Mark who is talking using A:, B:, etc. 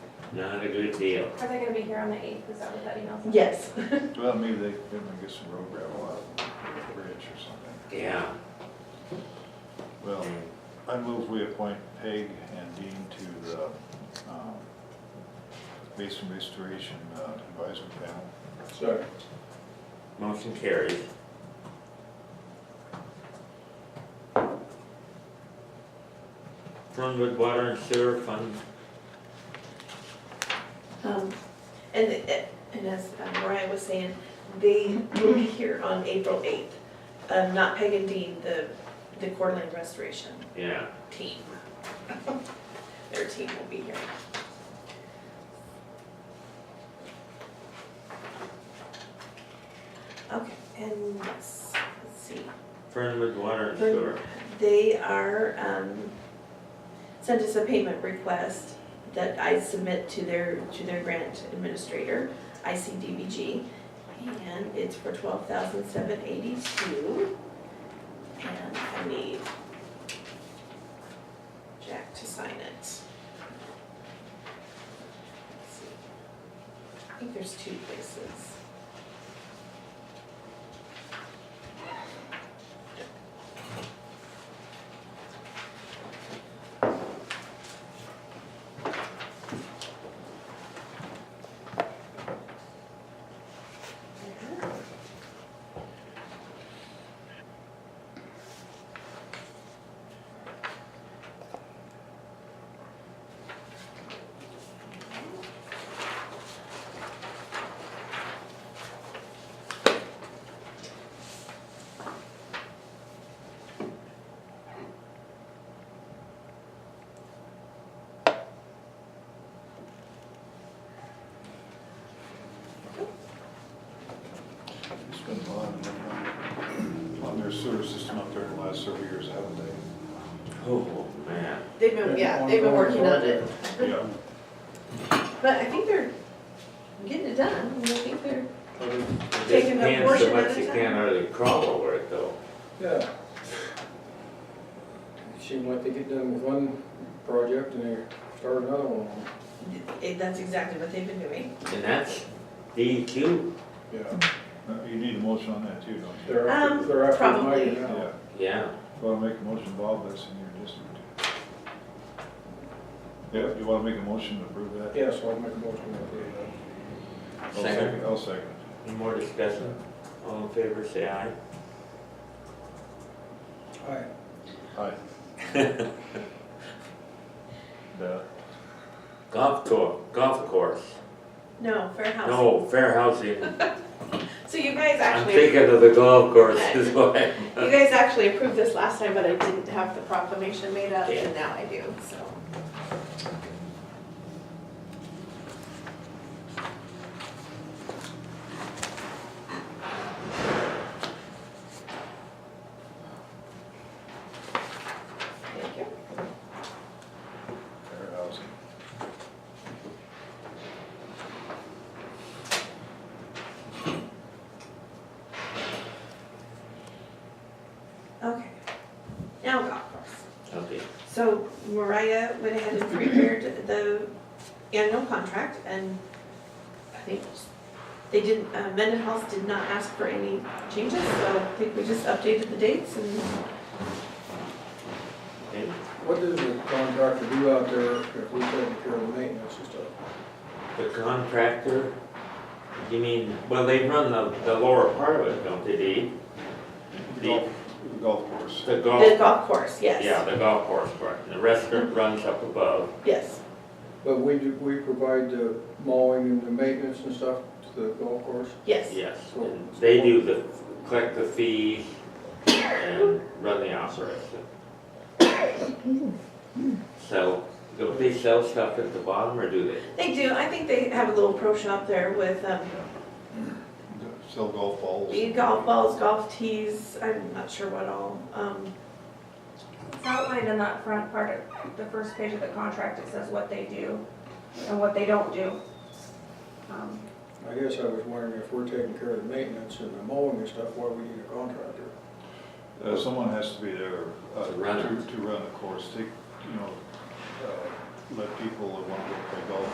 A: Not a good deal.
B: Are they gonna be here on the eighth, is that what that email said?
C: Yes.
D: Well, maybe they, they might get some road gravel out of the bridge or something.
A: Yeah.
D: Well, I move we appoint Peg and Dean to the, um, Basin Restoration uh, Advisory Panel.
E: Sorry.
A: Motion carries. Fernwood Water and Sewer Fund,
C: Um, And, and as uh, Mariah was saying, they will be here on April 8th. Um, Not Peg and Dean, the, the Coeur d'Alene Restoration
A: yeah.
C: team. Their team will be here. Okay, and let's, let's see.
A: Fernwood Water and
C: Fern-
A: Sewer.
C: They are, um, sent us a payment request that I submit to their, to their grant administrator, ICDBG, and it's for twelve thousand seven eighty-two. And I need Jack to sign it. Let's see. I think there's two places.
D: It's been a lot uh, on- on their sewer system up there in the last several years, haven't they?
A: Oh, man.
C: They've been, yeah, they've been working on it.
D: Yeah.
C: But I think they're getting it done, and I think they're,
A: It just
C: Taking a
A: depends
C: portion
A: how
C: at
A: much
C: a
A: you
C: time.
A: can hardly crawl over it though.
E: Yeah. Seem like they get done with one project and they start another one.
C: it- that's exactly what they've been doing.
A: And that's DEQ,
E: Yeah.
D: Uh, You need a motion on that too, don't you?
E: They're after,
C: Um,
E: they're after
C: probably.
E: Mike now.
D: Yeah,
A: yeah.
D: wanna make a motion, Bob, that's in your district. Yeah, you wanna make a motion to approve that?
E: Yeah, so I'll make a motion that
D: I'll
A: Second,
D: I'll second it.
A: any more discussion? All in favor, say aye.
E: they. Aye.
D: Hi. The,
A: Golf tour, golf course.
C: No, fair housing.
A: No, fair housing.
C: So you guys
A: I'm
C: actually, you
A: thinking of the golf course is what I-
C: guys actually approved this last time, but I didn't have the proclamation made up, and now I do, so. Thank you.
D: fair housing.
C: Okay. Now golf course.
A: Okay.
C: So Mariah went ahead and prepared the annual contract and I think they didn't, uh, Mendenhall's did not ask for any changes, so I think we just updated the dates and
A: And
E: What does the contractor do out there if we take care of the maintenance and stuff?
A: The contractor, you mean, well, they run the, the lower part of it, don't they, Dee? The,
D: Golf, golf course.
A: the
C: the
A: golf,
C: golf course,
A: Oh. yeah,
C: yes,
A: the golf course part. The restaurant runs up above.
C: yes.
E: But we do, we provide the mowing and the maintenance and stuff to the golf course?
C: Yes,
A: Yes, and they do the, collect the fees and run the operation. So, do they sell stuff at the bottom or do they?
C: they do. I think they have a little pro shop there with um,
D: Sell golf balls.
C: golf balls, golf tees, I'm not sure what all. um,
B: It's outlined in that front part of the first page of the contract, it says what they do and what they don't do. Um,
E: I guess I was wondering if we're taking care of the maintenance and the mowing and stuff, why we need a contractor?
D: Uh, someone has to be there. uh,
A: To run it.
D: To run the course, take, you know, uh, let people that want to play golf